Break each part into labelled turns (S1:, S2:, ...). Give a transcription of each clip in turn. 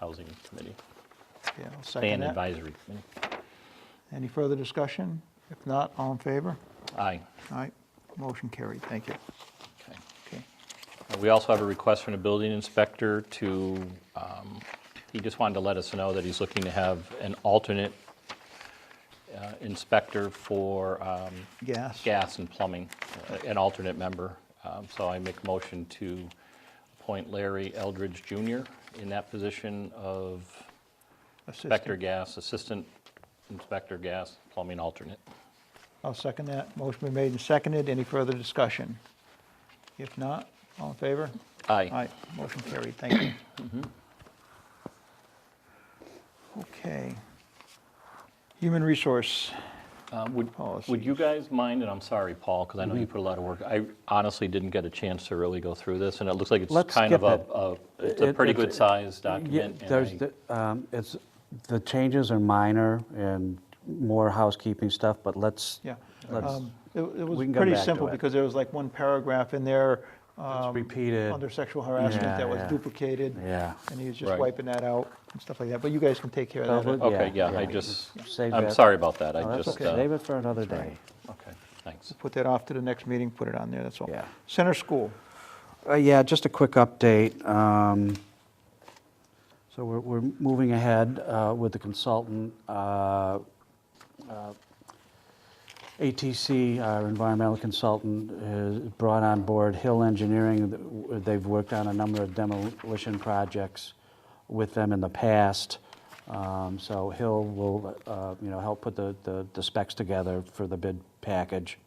S1: Housing Committee,
S2: Okay, I'll second
S1: Plan
S2: that.
S1: Advisory Committee.
S2: Any further discussion? If not, all in favor?
S1: Aye.
S2: All right, motion carried, thank you.
S1: Okay.
S2: Okay.
S1: Uh, We also have a request from the building inspector to, um, he just wanted to let us know that he's looking to have an alternate uh, inspector for um,
S2: Gas?
S1: gas and plumbing, uh, an alternate member. Um, So I make a motion to appoint Larry Eldridge Jr. in that position of
S2: Assistant.
S1: inspector gas, assistant inspector gas, plumbing alternate.
S2: I'll second that. Motion been made and seconded. Any further discussion? If not, all in favor?
S1: Aye.
S2: Aye, motion carried, thank you. Okay. Human Resource
S1: Uh, Would,
S2: Policy.
S1: would you guys mind, and I'm sorry, Paul, because I know you
S3: Mm-hmm.
S1: put a lot of work, I honestly didn't get a chance to really go through this, and it looks like it's
S3: Let's
S1: kind of
S3: skip
S1: a, a- it's a
S3: It-
S1: pretty
S3: it's-
S1: good sized
S3: Yeah,
S1: document. and
S3: there's
S1: I-
S3: the, um, it's, the changes are minor and more housekeeping stuff, but let's,
S2: Yeah.
S3: Let's-
S2: Um, It it was
S3: we can come
S2: pretty
S3: back to
S2: simple
S3: it.
S2: because there was like one paragraph in there. um,
S3: repeated.
S2: Under sexual harassment
S3: Yeah,
S2: that was
S3: yeah.
S2: duplicated.
S3: Yeah.
S2: And he was just
S1: Right.
S2: wiping that out and stuff like that. But you guys can take care of
S3: Uh,
S2: that.
S3: but-
S1: Okay,
S3: yeah,
S1: yeah, I
S3: yeah.
S1: just,
S3: Save
S1: I'm
S3: that.
S1: sorry about that, I
S3: No, that's
S1: just.
S3: okay,
S1: uh,
S3: save it for another day.
S1: Okay, thanks.
S2: Put that off to the next meeting, put it on there, that's all.
S3: Yeah.
S2: Center School,
S3: Uh, Yeah, just a quick update. Um, So we're, we're moving ahead uh, with the consultant. Uh, uh, ATC, our environmental consultant, has brought on board Hill Engineering. They've worked on a number of demolition projects with them in the past. Um, So Hill will, uh, you know, help put the, the- the specs together for the bid package.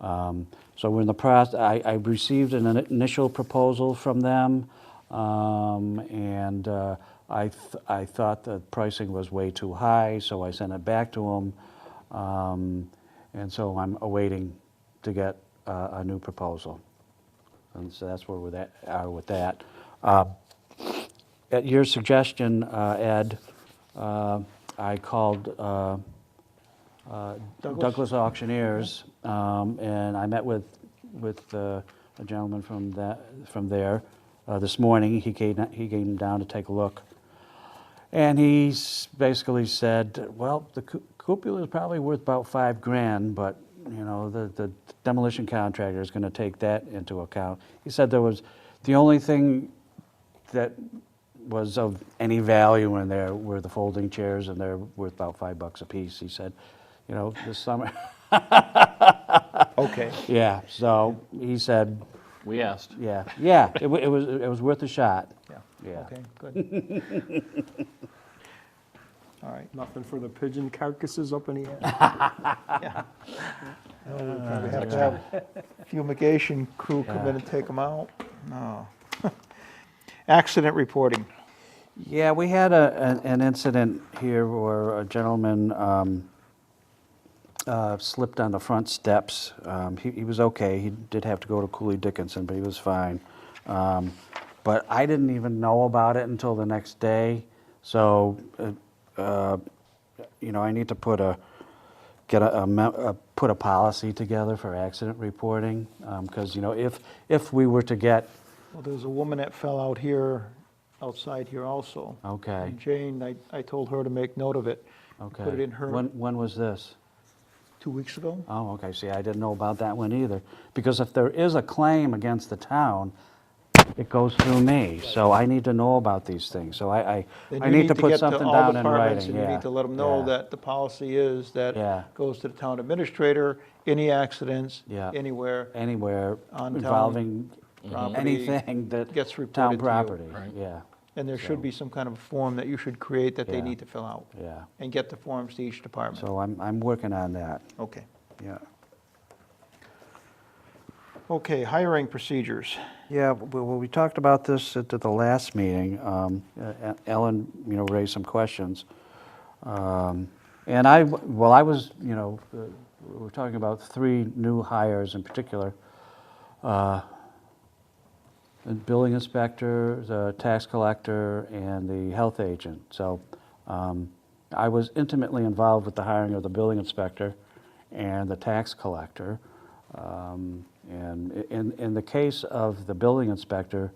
S3: Um, So we're in the process, I, I received an initial proposal from them, um, and uh, I, th- I thought the pricing was way too high, so I sent it back to them. Um, And so I'm awaiting to get uh, a new proposal. And so that's where we're at, are with that. Uh, At your suggestion, uh, Ed, uh, I called uh, uh,
S2: Douglas?
S3: Douglas Auctioneers, um, and I met with, with uh, a gentleman from that, from there uh, this morning. He came, he came down to take a look. And he s- basically said, well, the cu- cupola is probably worth about five grand, but, you know, the, the demolition contractor is gonna take that into account. He said there was, the only thing that was of any value in there were the folding chairs, and they're worth about five bucks a piece. He said, you know, this summer,
S2: okay.
S3: yeah, so he said,
S1: We asked.
S3: yeah, yeah, it wa- it was, it was worth a shot.
S2: Yeah,
S3: Yeah.
S2: okay, good. All right,
S4: Nothing for the pigeon carcasses up in the air.
S2: yeah. No, We probably have to have fumigation crew come in
S3: Yeah.
S2: and take them out, no. Accident reporting,
S3: Yeah, we had a, an- an incident here where a gentleman um, uh, slipped on the front steps. Um, He, he was okay, he did have to go to Cooley Dickinson, but he was fine. Um, But I didn't even know about it until the next day, so, uh, uh, you know, I need to put a, get a, a me- a- put a policy together for accident reporting, because, you know, if, if we were to get,
S2: well, there's a woman that fell out here, outside here also.
S3: okay,
S2: And Jane, I, I told her to make note of it.
S3: okay.
S2: Put it in her
S3: When, when was this?
S2: two weeks ago.
S3: Oh, okay, see, I didn't know about that one either, because if there is a claim against the town, it goes through me, so I need to know about these things, so I, I,
S2: Then
S3: I
S2: you
S3: need to
S2: get
S3: put something
S2: all
S3: down in
S2: departments
S3: writing,
S2: And you
S3: yeah.
S2: need to let them know
S3: yeah.
S2: that the policy is
S3: Yeah.
S2: that goes to the town administrator, any accidents,
S3: Yeah.
S2: anywhere,
S3: Anywhere
S2: On town
S3: involving
S2: property
S3: anything that.
S2: gets
S3: Town
S2: reported to you.
S3: property,
S1: Right.
S3: yeah,
S2: And there should
S3: So-
S2: be some kind of a form that you should create that they
S3: Yeah.
S2: need to fill out
S3: yeah,
S2: and get the forms to each department.
S3: so I'm, I'm working on that,
S2: Okay.
S3: yeah.
S2: Okay, hiring procedures.
S3: Yeah, w- well, we talked about this at the- the last meeting. Um, uh, Ellen, you know, raised some questions. Um, And I, well, I was, you know, uh, we we're talking about three new hires in particular. Uh, The building inspector, the tax collector, and the health agent. So um, I was intimately involved with the hiring of the building inspector and the tax collector. Um, And i- in, in the case of the building inspector,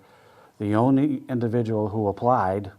S3: the only individual who applied